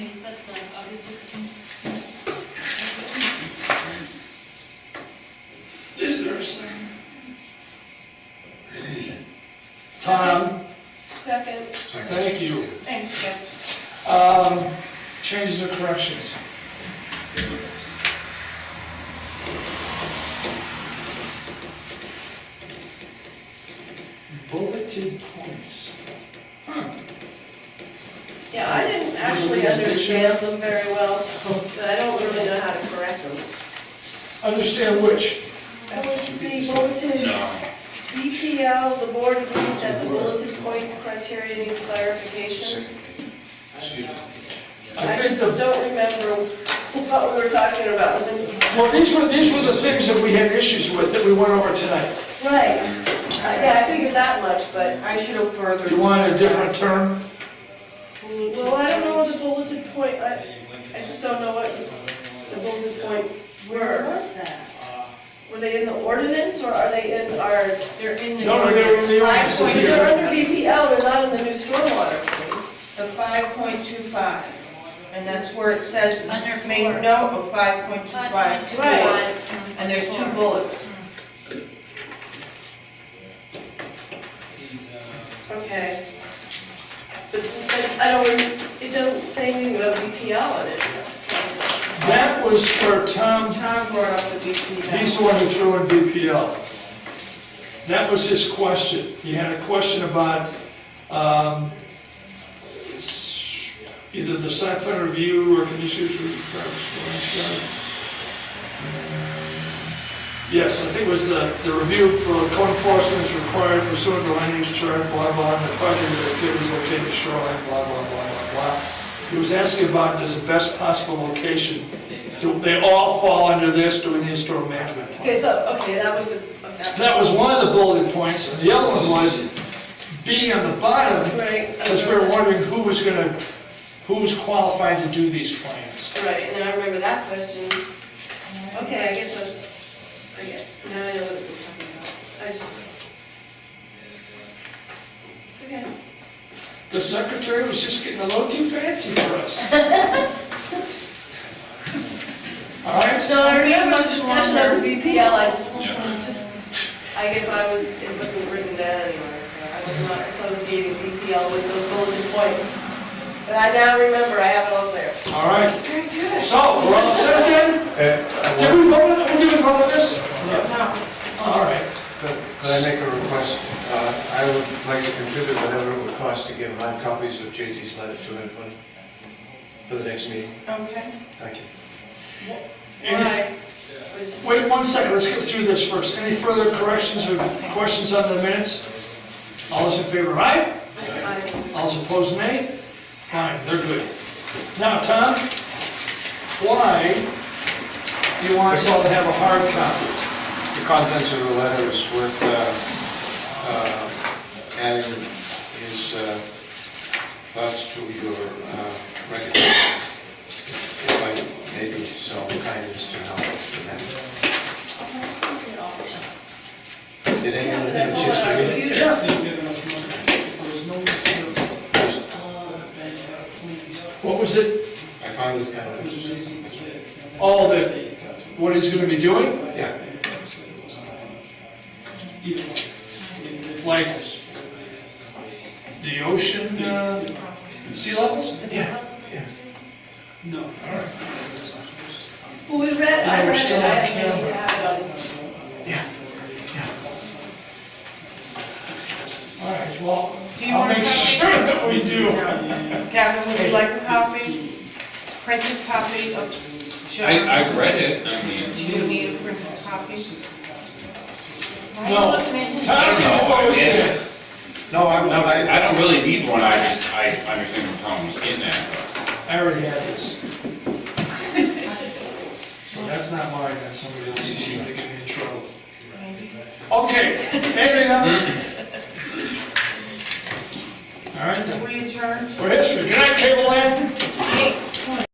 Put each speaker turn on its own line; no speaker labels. Thank you.
Thanks, Jeff.
Um, Changes or corrections? Bulleted points.
Yeah, I didn't actually understand them very well, so but I don't really know how to correct them.
Understand which?
That was the bulletin, BPL, the board agreed that the bulletin points criteria needs clarification.
I
I
think
just
the
don't remember what we were talking about. when we-
Well, these were, these were the things that we had issues with that we went over tonight.
Right, Uh, yeah, I figured that much, but,
I should have further.
You want a different term?
well, I don't know what the bulletin point, I, I just don't know what the bulletin point
Where
were.
was that?
Were they in the ordinance, or are they in our,
They're in the.
No, no, they're in the ordinance.
Five point-
if they're under BPL, they're not in the new stormwater thing.
The five point two five, and that's where it says, make note of five point two five.
Right.
And there's two bullets.
Okay. But but I don't, rem- it doesn't say anything about BPL in it.
That was for Tom,
Tom brought up the BP now.
he's the one who threw in BPL. That was his question. He had a question about um, s- either the site plan review or conditions. for the private school and stuff. Yes, I think it was the, the review for code enforcement is required pursuant to land use chart, blah, blah, and the project that was located shoreline, blah, blah, blah, blah, blah. He was asking about does the best possible location, do they all fall under this, do we need a storm management plan?
Okay, so, okay, that was the, okay.
That was one of the bullet points, and the other one was being on the bottom,
Right.
because we were wondering who was gonna, who was qualified to do these plans.
Right, and I remember that question. Okay, I guess I was, I guess, now I know what we're talking about. I just. It's okay.
The secretary was just getting a little too fancy for us. All right,
No, I remember the discussion of BPL, I just, it's just, I guess I was, it wasn't written down anywhere, so I was not associating BPL with those bulletin points. But I now remember, I have it all there.
all right,
Very good.
so, we're all set then?
Uh,
Did we vote, on- did we vote on this? No. All right,
Could could I make a request? Uh, I would like to contribute whatever it would cost to give hard copies of JT's letter to everyone for the next meeting.
Okay.
Thank you.
Any-
Why? Was-
wait one second, let's get through this first. Any further corrections or questions on the minutes? All those in favor, aye?
I-
All those opposed, nay? Fine, they're good. Now, Tom, why do you want us all to have a hard copy?
The contents of the letter is worth uh, uh, adding his uh, thoughts to your uh, record. If I may be so kind as to help with that. Did anyone
Did I
have a
pull it out of
chance to
the
read it?
computer?
What was it,
I found it kind of interesting.
all that, what he's gonna be doing?
Yeah.
Like, the ocean, uh, sea levels?
Yeah, yeah.
Well, we read, it. I
No, we're
read
still
it,
on
I think I need
camera.
to have it on.
All right, well,
Do you
I'll
want a
make
copy?
sure that we do.
Gavin, would you like a copy? Printed copy of.
I, I've read it, I mean,
Do you need a printed copy? Why are you
No.
looking at him?
Tom proposed it.
No, I,
no,
I,
I don't really need one, I just, I understand what Tom was getting at.
I already had this. So that's not mine, that's somebody else's, she's gonna get me in trouble. Okay, anything else? All right then,
Were you adjourned?
we're history, good night, Cable Land.